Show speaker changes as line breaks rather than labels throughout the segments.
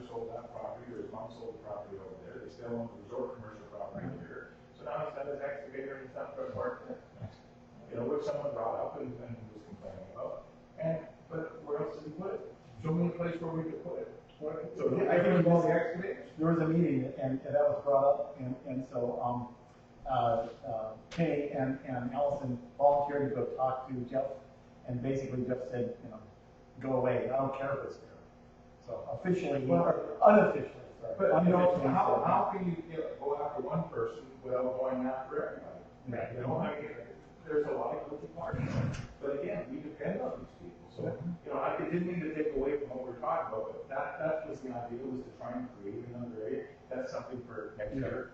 that property, there's mom sold the property over there, they still own the resort commercial property here.
So now he's got his excavator and stuff to work.
You know, which someone brought up and, and was complaining about. And, but where else did he put it? Show me a place where we could put it.
What-
So
I can involve the
excavator?
There was a meeting and, and that was brought up and, and so, um, uh, uh, Kay and, and Allison volunteered to go talk to Jeff. And basically Jeff said, you know, go away, I don't care if it's there. So officially, or unofficially, sorry.
But, you know,
unofficially,
how,
so-
how can you get, go after one person without going after everybody?
Right.
You know, I mean, there's a lot of guilty parties, but again, we depend on these people, so, you know, I, it didn't mean to take away from what we're talking about, but that, that was the idea, was to try and create another area, that's something for next year.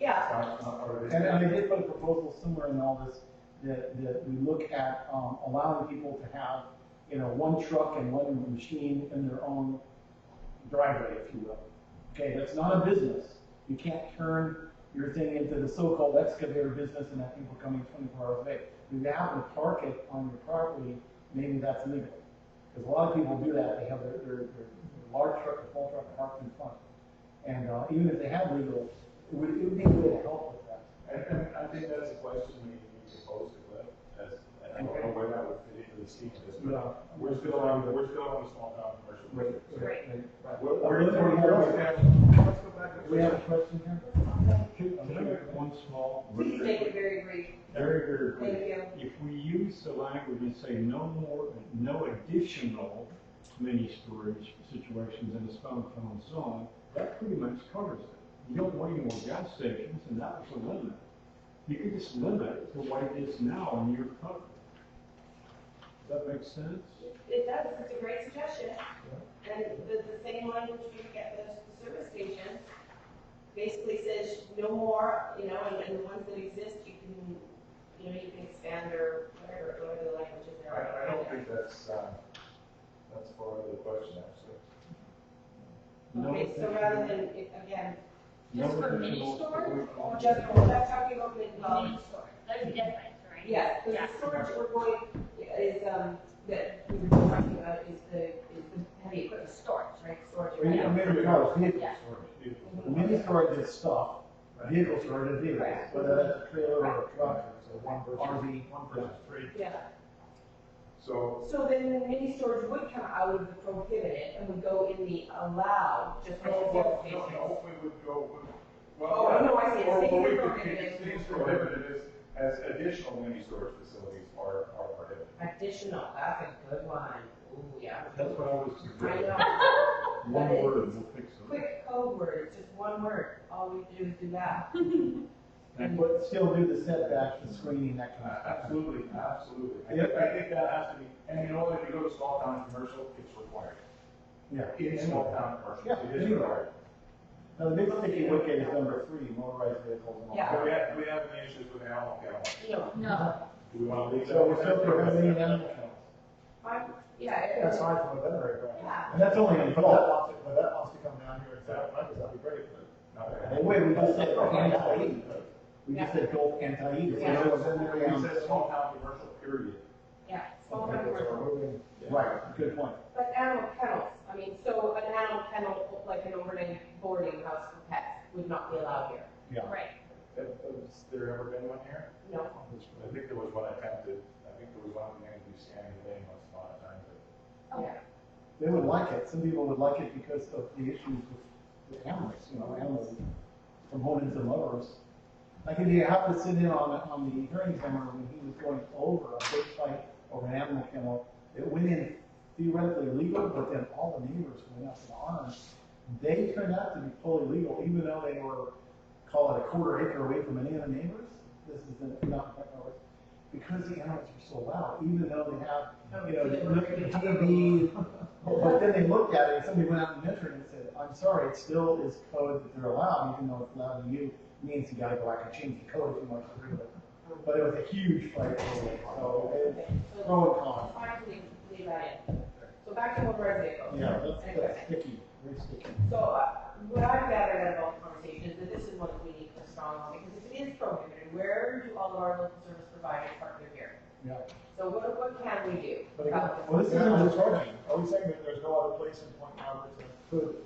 Yeah,
It's not, it's not part of this.
And, and I did put a proposal somewhere in all this, that, that we look at, um, allowing people to have, you know, one truck and one machine in their own driveway, if you will. Okay, that's not a business. You can't turn your thing into the so-called excavator business and have people coming twenty-four hours a day. If you happen to park it on your property, maybe that's legal. Because a lot of people do that, they have their, their, their large truck, or full truck parked in front. And, uh, even if they have legal, it would, it would be a way to help with that.
And, and I think that's a question we need to pose to Glenn, as, and I don't know where that would fit into the scheme of this, but
No,
we're still on, we're still on the small town commercial. district, so-
Right.
Right, We're,
We're
we're,
in-
we're,
we're-
we're- let's go back.
We have a question here?
Can can I make one small?
please make it very brief.
Very, very
Thank
brief.
you.
If we use the language and say no more, no additional mini storage situations in a downtown zone, that pretty much covers it. You don't want any more gas stations, and that was a limit. You could just limit it to what it is now, and you're covered. Does that make sense?
It does, it's a great suggestion. And the, the same language we get at the service station basically says no more, you know, and, and the ones that exist, you can, you know, you can expand or whatever, whatever the language is there.
I, I don't think that's, uh, that's part of the question, actually.
No
Okay, so
additional-
rather than, it- again,
no
Just for mini
additional
storage or
storage.
just, we're not talking about the, um,
There's a difference, right?
yes, because
Yeah.
the storage we're going, is, um, that we we're talking about is the, is the heavy equipment storage, right, storage.
Or you- or maybe we call it vehicle
Yeah.
storage.
Beautiful.
Mini storage is stuff, vehicle storage is vehicles,
Right.
whether that's a trailer or a truck,
So one versus,
RV.
one versus three.
Yeah.
So,
So then the mini storage would come out of the prohibited and would go in the allowed, just like
no,
the
Oh, well, no, no,
service station.
we would go, with-
Oh,
well, yeah.
no, I see.
Or-
Things
or we
are
could-
prohibited.
Things prohibited as, as additional mini storage facilities are, are prohibited.
Additional, that's a good one. Ooh, yeah.
That's what I was
I
suggesting.
know.
One
That is-
word, and we'll fix it.
Quick code word, it's just one word. All we have to do is do that.
and but still do the setbacks, the screening, that kind of
Uh,
stuff.
Absolutely, absolutely. I think, I think that has to be, and you know, if you go to small town commercial, it's required.
Yeah.
In small town commercial,
Yeah,
it is
anywhere.
required.
Now, the big sticky wicket is number three, motorized vehicles and all.
Yeah.
So we
that.
have, we have any issues with animal kennel?
No.
No.
Do we want to leave that?
So we're still prohibiting animal kennels.
Fine. Yeah. it-
That's fine from a veterinary point.
Yeah.
And that's only in
If that
adult.
wants, if that wants to come down here and set up, money, that'd be great,
Not
but.
that.
And wait, we just said anti-E.
Yeah.
We just said both anti-E.
We said- we said small town commercial, period.
Yeah. Small town commercial.
Right, good point.
But animal kennels, I mean, so an animal kennel, like an overnight boarding house for pets, would not be allowed here.
Right.
Has has there ever been one here?
No.
I think there was one attempted, I think there was one in New Scanning Lane once upon a time, but
Oh. They would like it, some people would like it because of the issues with the animals, you know, animals, proponents and lovers. Like, if you have to sit in on, on the hearing camera when he was going over a big fight over an animal kennel, it went in theoretically legal, but then all the neighbors went up in arms. They turned out to be fully legal, even though they were, call it a quarter acre away from any of the neighbors. This is the, not, because the animals were so loud, even though they have you know, they look at the TV, but then they looked at it, and somebody went out and measured it and said, I'm sorry, it still is code that they're allowed, even though it's allowed to you, means you gotta go back and change the code if you want to agree with it. But it was a huge fight, over it, so it's
Okay, so
pro and con.
fine, leave, leave that in. So back to motorized vehicles.
Yeah, that's, that's sticky, very sticky.
So uh, what I've gathered out of all the conversations, that this is one that we need to strong, because if it is prohibited, where do all of our local service providers partner here?
Yeah.
So what, what can we do?
But again,
about
Well, this
Yeah,
isn't
I'm
just
sorry.
parking.
Are we saying that there's no other place in Point Roberts that could